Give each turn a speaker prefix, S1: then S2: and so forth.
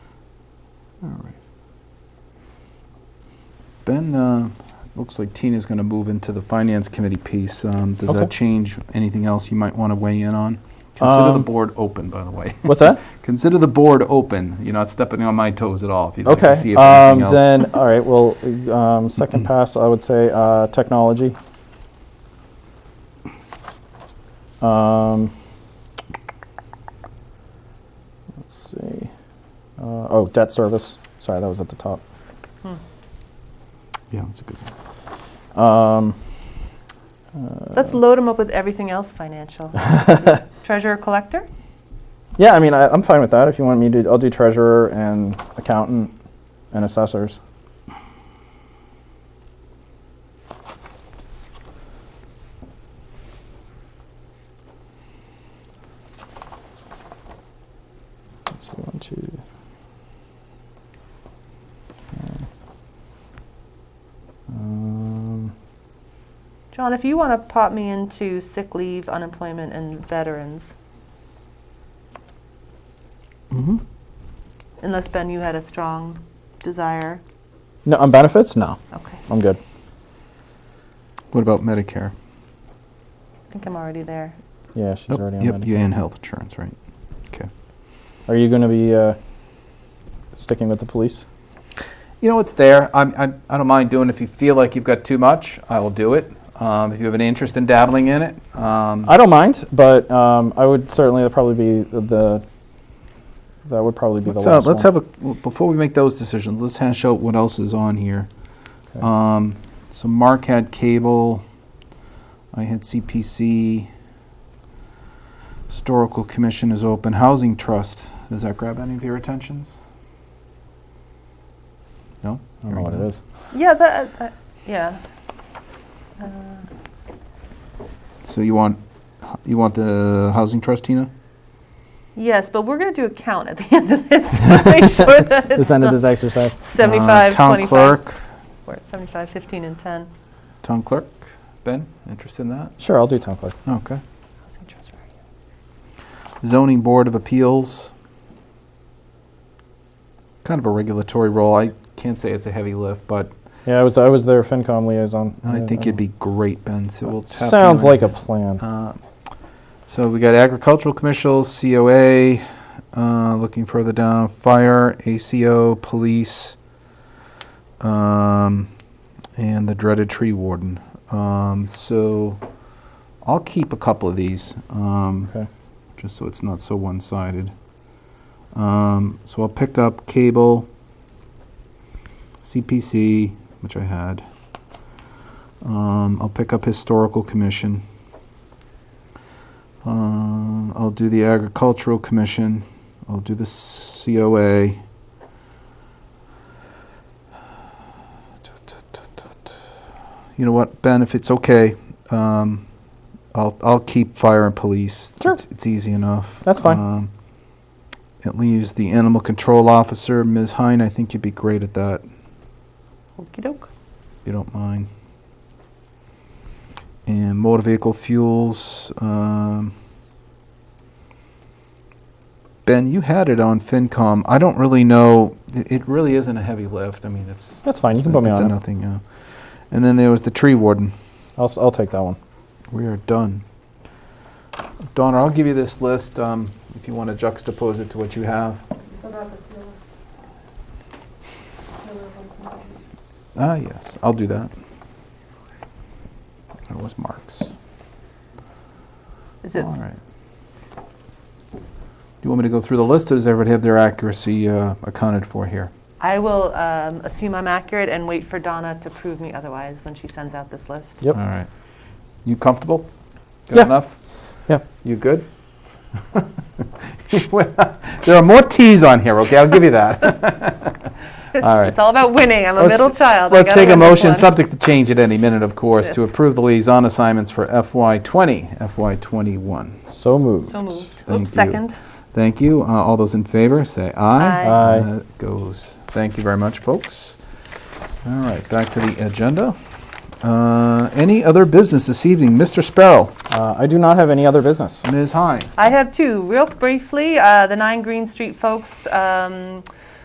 S1: Ben, uh, looks like Tina's going to move into the Finance Committee piece. Um, Does
S2: Okay.
S1: that change anything else you might want to weigh in on? Consider the
S2: Um,
S1: board open, by the way.
S2: What's that?
S1: Consider the board open. You're not stepping on my toes at all if you'd like
S2: Okay.
S1: to see if
S2: um,
S1: anything else.
S2: Then, all right. Well, um, second pass, I would say uh, technology. Um, let's see. Uh, oh, debt service. Sorry, that was at the top.
S1: Yeah, that's a good one.
S2: Um,
S3: Let's load them up with everything else financial. Treasurer, collector?
S2: yeah, I mean, I, I'm fine with that. If you want me to, I'll do treasurer and accountant and assessors. Let's see, one, two. okay. Um,
S3: John, if you want to pop me into sick leave, unemployment, and veterans,
S1: Mm-hmm.
S3: unless Ben, you had a strong desire.
S2: no, on benefits? No,
S3: Okay,
S2: I'm good.
S1: What about Medicare?
S3: I think I'm already there.
S2: Yeah, she's
S1: Nope,
S2: already on
S1: Yep,
S2: Medicare.
S1: you and health insurance, right? Okay.
S2: Are you going to be uh, sticking with the police?
S1: You know, it's there. I'm, I'm, I don't mind doing If you feel like you've got too much, I will do it. Um, if you have an interest in dabbling in it, um,
S2: I don't mind, but um, I would certainly that'd probably be the that would probably be
S1: Let's,
S2: the
S1: uh,
S2: last.
S1: let's
S2: one.
S1: have a, well, before we make those decisions, let's hash out what else is on here.
S2: Okay.
S1: Um, so Mark had cable, I had CPC, Historical Commission is open, Housing Trust, does that grab any of your attentions? No?
S2: I don't know what it is.
S3: Yeah, that, that- yeah. Uh,
S1: So you want, you want the Housing Trust, Tina?
S3: Yes, but we're going to do a count at the end of this. to Make sure that
S2: This
S3: it's
S2: end of
S3: not
S2: this exercise.
S3: 75,
S1: Uh, Town
S3: 25.
S1: Clerk,
S3: We're at 75, 15, and 10.
S1: Town Clerk, Ben, interested in that?
S2: Sure, I'll do town clerk.
S1: Okay.
S3: Housing trust, right.
S1: Zoning Board of Appeals. Kind of a regulatory role. I can't say it's a heavy lift, but
S2: Yeah, I was I was their FinCom liaison.
S1: I
S2: Yeah,
S1: think it'd be great, Ben, so we'll tap you
S2: sounds
S1: in.
S2: like a plan.
S1: Uh, So we got agricultural commercials, COA, uh, looking further down, fire, ACO, police, um, and the dreaded tree warden. Um, So I'll keep a couple of these. um,
S2: okay.
S1: just so it's not so one-sided. Um, so I'll pick up cable, CPC, which I had. Um, I'll pick up historical commission. Um, I'll do the agricultural commission. I'll do the COA. You know what, Ben? If it's okay, um, I'll I'll keep fire and police.
S2: Sure.
S1: It's, it's easy enough.
S2: That's fine.
S1: Um, it leaves the animal control officer, Ms. Hine. I think you'd be great at that, if
S3: Okey doke.
S1: you don't mind. And motor vehicle fuels. Um, ben, you had it on FinCom. I don't really know. It, it really isn't a heavy lift. I mean, it's.
S2: That's fine. You
S1: it's
S2: can
S1: a-
S2: put me
S1: it's a
S2: on it.
S1: nothing. Yeah. And then there was the tree warden.
S2: I'll s- I'll take that one.
S1: We are done. Donna, I'll give you this list um, if you want to juxtapose it to what you have. Ah, yes, I'll do that. That was Mark's.
S3: Is it
S1: All right. Do you want me to go through the list, or does everybody have their accuracy uh, accounted for here?
S3: I will um, assume I'm accurate and wait for Donna to prove me otherwise when she sends out this list.
S2: Yep.
S1: All right. You comfortable?
S2: Yeah.
S1: Got enough?
S2: Yeah.
S1: You good? There are more Ts on here, okay? I'll give you that. All right.
S3: It's all about winning. I'm a
S1: Let's-
S3: middle child. I
S1: Let's
S3: gotta
S1: take a
S3: win this
S1: motion,
S3: one.
S1: subject to change at any minute, of course, to
S3: Yes.
S1: approve the liaison assignments for FY '20, FY '21.
S2: So moved.
S3: So moved.
S1: Thank you.
S3: Oops, second.
S1: Thank you. Uh, All those in favor, say aye. Uh,
S3: Aye.
S2: Aye.
S1: That goes. Thank you very much, folks. All right, back to the agenda. Uh, Any other business this evening? Mr. Sparrow,
S2: Uh, I do not have any other business.
S1: Ms. Hine.
S3: I have two. Real briefly, uh, the Nine Green Street folks um,